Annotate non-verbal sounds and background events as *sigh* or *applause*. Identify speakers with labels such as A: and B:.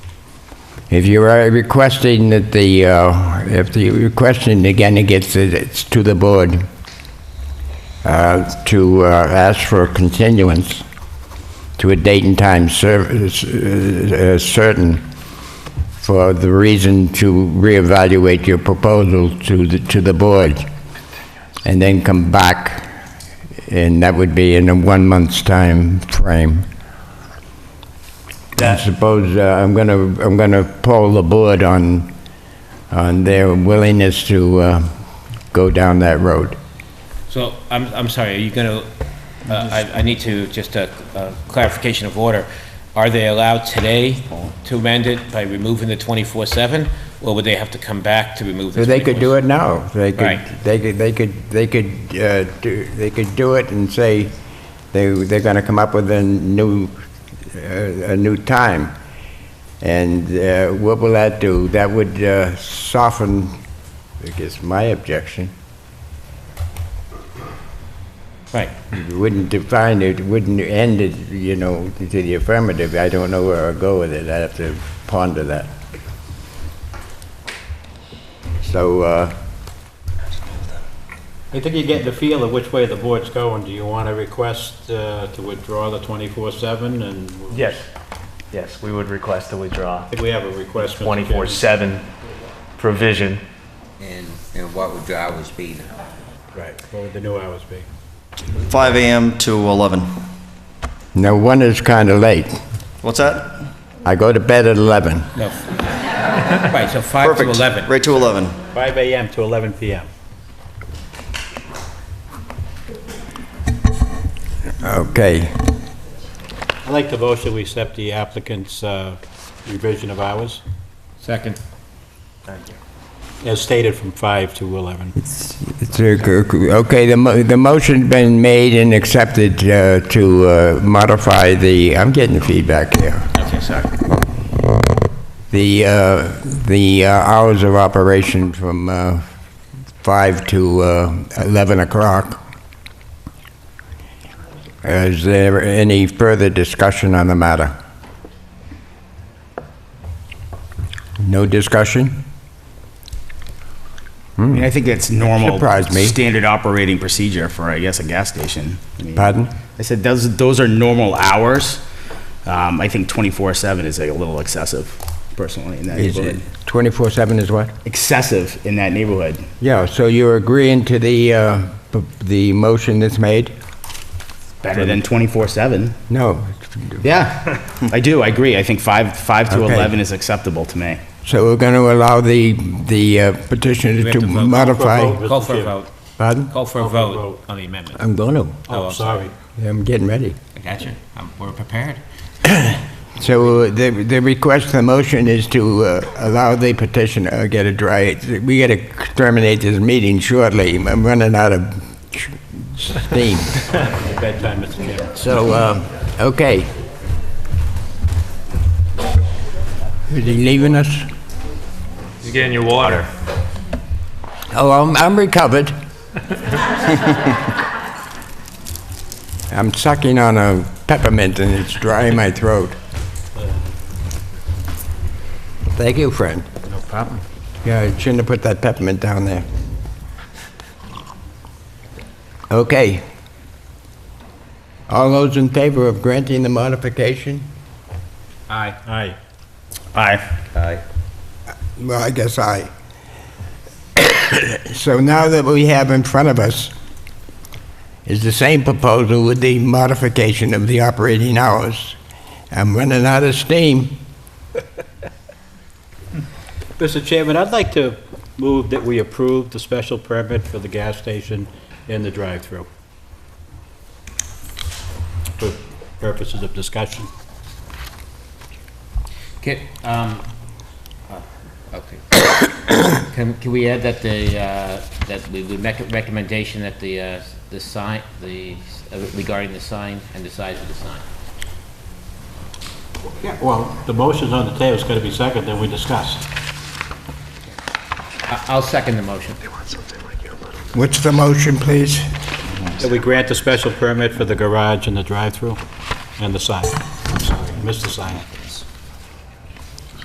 A: If you are requesting that the, uh, if the requesting, again, it gets, it's to the board, uh, to uh, ask for continuance to a date and time cer- uh, certain for the reason to reevaluate your proposal to the, to the board, and then come back, and that would be in a one-month's time frame. I
B: That-
A: suppose uh, I'm going to, I'm going to poll the board on, on their willingness to uh, go down that road.
C: So, I'm, I'm sorry, are you going to, I, I need to, just a a clarification of order. Are they allowed today to amend it by removing the 24/7? Or would they have to come back to remove the
A: So
C: 24/7?
A: they could do it now. They could,
C: Right.
A: they could, they could, they could, uh, do- they could do it and say they, they're gonna come up with a new, uh, a new time. And uh, what will that do? That would uh, soften, I guess, my objection.
C: Right,
A: It Wouldn't define it, wouldn't end it, you know, to the affirmative. I don't know where I'll go with it. I have to ponder that. So, uh,
D: I think you're getting the feel of which way the board's going. Do you want to request uh, to withdraw the 24/7 and?
B: Yes, yes, we would request to withdraw
D: I think we have a request. Mr. Chairman.
B: 24/7 provision.
E: And, and what would the hours be now?
D: Right, what would the new hours be?
F: 5 a.m. to 11.
A: now one is kinda late.
F: What's that?
A: I go to bed at 11.
C: no. Right, so 5 to
F: Perfect.
C: 11.
F: Right to 11.
D: 5 AM to 11 PM.
A: Okay.
D: I'd like to motion we accept the applicant's uh, revision of hours,
C: Second.
D: as stated from 5 to 11.
A: It's a g- g- Okay, the, mo- the motion's been made and accepted uh, to uh, modify the, I'm getting feedback here.
C: Okay, sorry.
A: The, uh, the uh, hours of operation from uh, 5 to uh, 11 o'clock. Is there any further discussion on the matter? No discussion?
G: I mean, I think that's normal.
A: Surprised me.
G: Standard operating procedure for, I guess, a gas station. I mean,
A: Pardon?
G: I said, those, those are normal hours. Um, I think twenty-four seven is like a little excessive, personally, in that
A: Is it
G: neighborhood.
A: 24/7 is what?
G: Excessive in that neighborhood.
A: Yeah, so you're agreeing to the, uh, p- the motion that's made?
G: Better than twenty-four seven.
A: No. *laughs*
G: Yeah, I do, I agree. I think five, five to
A: Okay.
G: eleven is acceptable to me.
A: So we're going to allow the, the uh, petitioner
C: have
A: to
C: to vote.
A: modify,
D: Vote.
C: Call for a
D: Mr.
C: vote.
A: pardon?
C: Call for a
D: for a
C: vote
D: vote.
C: on the amendment.
A: I'm going to,
C: Oh,
D: Oh,
C: I'm
D: sorry.
A: I'm getting ready.
C: I got you. I'm- We're prepared.
A: So uh, the, the request, the motion is to uh, allow the petitioner, uh, get a dry, we got to terminate this meeting shortly, I'm running out of steam.
D: Bedtime, Mr. Chairman.
A: So, um, okay. Is he leaving us?
B: You're getting your water.
A: Oh, I'm, I'm recovered. I'm sucking on a peppermint and it's dry in my throat. Thank you, friend. No problem. Yeah, I shouldn't have put that peppermint down there. Okay. All those in favor of granting the modification?
C: Aye.
D: Aye.
G: Aye.
A: Well, I guess I. *coughs* So now that we have in front of us is the same proposal with the modification of the operating hours. I'm running out of steam.
D: Mr. Chairman, I'd like to move that we approve the special permit for the gas station and the drive-through. For purposes of discussion.
C: Can,
D: uh,
C: um, oh, okay. Can, can we add that the, uh, that we would make a recommendation that the, uh, the sign, the, uh, regarding the sign and the size of the sign?
D: Yeah, well. The motion's on the table, it's gotta be second, then we discuss.
C: I- I'll second the motion.
A: What's the motion, please?
D: That we grant the special permit for the garage and the drive-through and the sign. I'm sorry, I missed the sign.